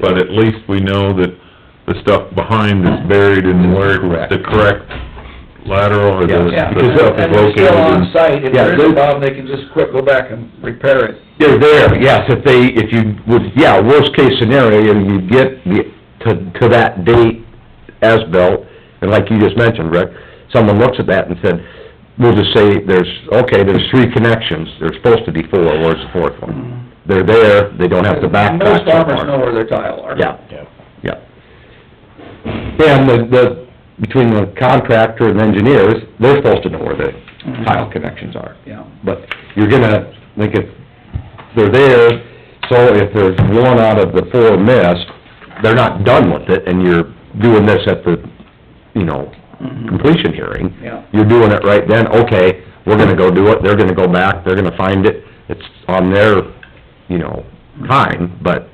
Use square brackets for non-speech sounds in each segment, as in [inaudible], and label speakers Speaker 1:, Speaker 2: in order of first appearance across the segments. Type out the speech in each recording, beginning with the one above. Speaker 1: but at least we know that the stuff behind is buried in where
Speaker 2: Correct.
Speaker 1: the correct lateral or the,
Speaker 2: Yeah.
Speaker 1: the stuff is
Speaker 3: And they're
Speaker 1: located
Speaker 3: still
Speaker 1: in.
Speaker 3: on site, if
Speaker 2: Yeah,
Speaker 3: there is
Speaker 2: those-
Speaker 3: a problem, they can just quick go back and repair it.
Speaker 2: They're there, yes, if they, if you would, yeah, worst case scenario, you get the, to, to that date as built, and like you just mentioned, Rick, someone looks at that and said, we'll just say there's, okay, there's three connections, there's supposed to be four, where's the fourth one? They're there, they don't have to backtrack.
Speaker 3: Most
Speaker 2: so
Speaker 3: farmers
Speaker 2: far.
Speaker 3: know where their tile are.
Speaker 2: Yeah. Yeah. And the, the, between the contractor and engineers, they're supposed to know where the
Speaker 3: Mhm.
Speaker 2: tile connections are.
Speaker 3: Yeah.
Speaker 2: But you're gonna, like, if they're there, so if there's one out of the four missed, they're not done with it, and you're doing this at the, you know,
Speaker 4: Mm-hmm.
Speaker 3: Mhm.
Speaker 2: completion hearing.
Speaker 3: Yeah.
Speaker 2: You're doing it right then, okay, we're gonna go do it, they're gonna go back, they're gonna find it, it's on their, you know, time, but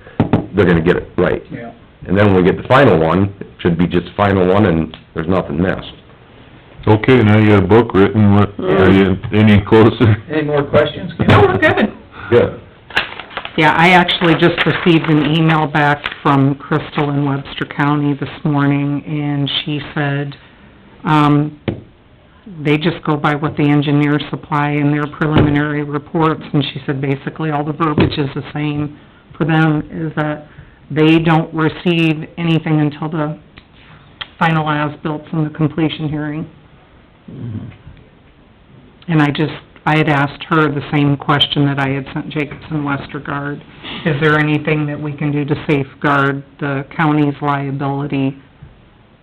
Speaker 2: they're gonna get it right.
Speaker 3: Yeah.
Speaker 2: And then when we get the final one, it should be just the final one and there's nothing missed.
Speaker 1: Okay, now you got a book written, what, are you
Speaker 3: Mm.
Speaker 1: any closer?
Speaker 3: Any more questions, Kim?
Speaker 4: No, we're good.
Speaker 2: Good.
Speaker 4: Yeah, I actually just received an email back from Crystal in Webster County this morning, and she said, um, they just go by what the engineers supply in their preliminary reports, and she said basically all the verbiage is the same for them, is that they don't receive anything until the final as-built from the completion hearing. And I just, I had asked her the same question that I had sent Jacobson Westergaard. Is there anything that we can do to safeguard the county's liability?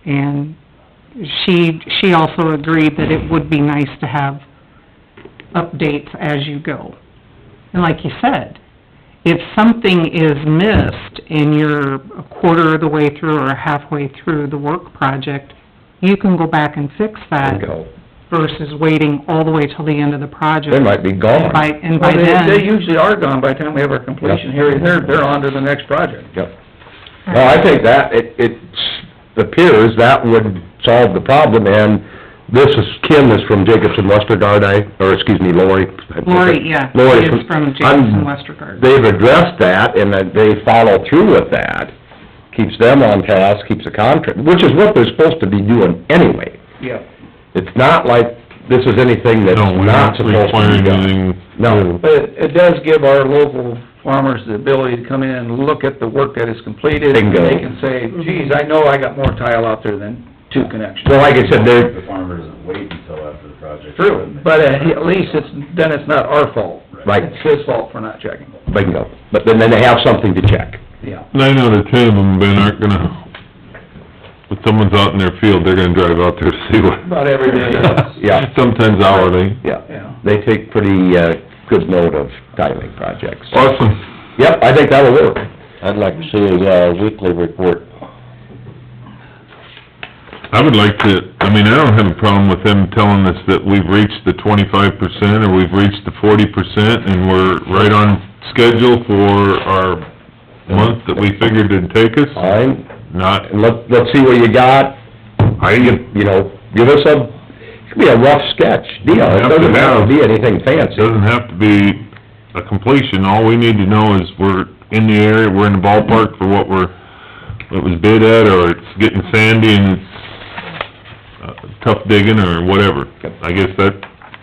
Speaker 4: And she, she also agreed that it would be nice to have updates as you go. And like you said, if something is missed and you're a quarter of the way through or halfway through the work project, you can go back and fix that
Speaker 2: Bingo.
Speaker 4: versus waiting all the way till the end of the project.
Speaker 2: They might be gone.
Speaker 4: By, and
Speaker 3: Well,
Speaker 4: by
Speaker 3: they, they
Speaker 4: then,
Speaker 3: usually are gone by the time we have our completion hearing, they're, they're on to the next project.
Speaker 2: Yep. Well, I think that, it, it appears that would solve the problem and this is, Kim is from Jacobson Westergaard, I, or excuse me, Lori.
Speaker 4: Lori, yeah,
Speaker 2: Lori
Speaker 4: she is from Jacobson
Speaker 2: I'm-
Speaker 4: Westergaard.
Speaker 2: They've addressed that and that they follow through with that, keeps them on task, keeps the contract, which is what they're supposed to be doing anyway.
Speaker 3: Yeah.
Speaker 2: It's not like this is anything that's
Speaker 1: No, we're
Speaker 2: not
Speaker 1: not
Speaker 2: supposed to be
Speaker 1: requiring
Speaker 2: done.
Speaker 1: anything.
Speaker 2: No.
Speaker 3: But it, it does give our local farmers the ability to come in and look at the work that is completed. and
Speaker 2: Bingo.
Speaker 3: They can say,
Speaker 4: Mm-hmm.
Speaker 3: geez, I know I got more tile out there than two connections.
Speaker 2: Well, like I said, they're,
Speaker 5: The farmer doesn't wait until after the project.
Speaker 3: True, but at least it's, then it's not our fault.
Speaker 2: Right.
Speaker 3: It's his fault for not checking,
Speaker 2: bingo, but then, then they have something to check.
Speaker 3: yeah.
Speaker 1: Nine out of ten of them, Ben, aren't gonna, if someone's out in their field, they're gonna drive out there to see what.
Speaker 3: About every day.
Speaker 2: Yeah.
Speaker 1: Sometimes hourly.
Speaker 3: [laughs] Yeah.
Speaker 2: They take pretty, uh, good note of tiling projects.
Speaker 1: Awesome.
Speaker 2: Yep, I think that'll work.
Speaker 6: I'd like to see a uh, weekly report.
Speaker 1: I would like to, I mean, I don't have a problem with them telling us that we've reached the twenty-five percent, or we've reached the forty percent, and we're right on schedule for our month that we figured it'd take us.
Speaker 2: Fine,
Speaker 1: Not,
Speaker 2: and let, let's see what you got,
Speaker 1: I, it
Speaker 2: you know, give us a, should be a rough sketch deal. It doesn't have to be anything fancy.
Speaker 1: doesn't have to be a completion, all we need to know is we're in the area, we're in the ballpark for what we're, what was bid at, or it's getting sandy and it's uh, tough digging, or whatever. I guess that,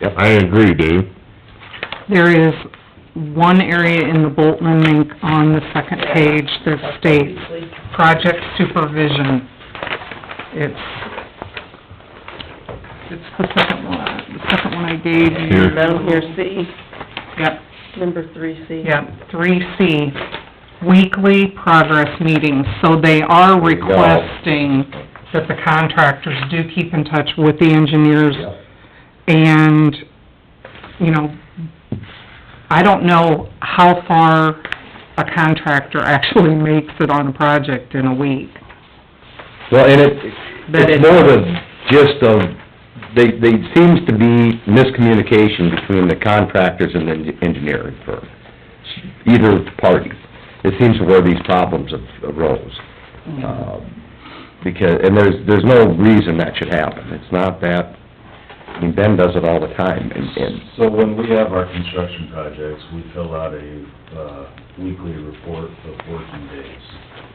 Speaker 2: Yep.
Speaker 1: I agree, Dave.
Speaker 4: There is one area in the Boltman link on the second page that states, project supervision. It's, it's the second one, the second one I gave you.
Speaker 1: Here.
Speaker 7: Down here, C,
Speaker 4: Yep,
Speaker 7: number three C.
Speaker 4: yep, three C, weekly progress meetings. So they are
Speaker 2: There you go.
Speaker 4: requesting that the contractors do keep in touch with the engineers and, you know, I don't know how far a contractor [laughs] actually makes it on a project in a week.
Speaker 2: Well, and it,
Speaker 4: But
Speaker 2: it's
Speaker 4: it-
Speaker 2: more the gist of, they, they seems to be miscommunication between the contractors and the engineering firm, either party. It seems to where these problems have arose.
Speaker 4: Mm.
Speaker 2: Um, Because, and there's, there's no reason that should happen. It's not that, I mean, Ben does it all the time, and, and,
Speaker 5: So when we have our construction projects, we fill out a, uh, weekly report of working days.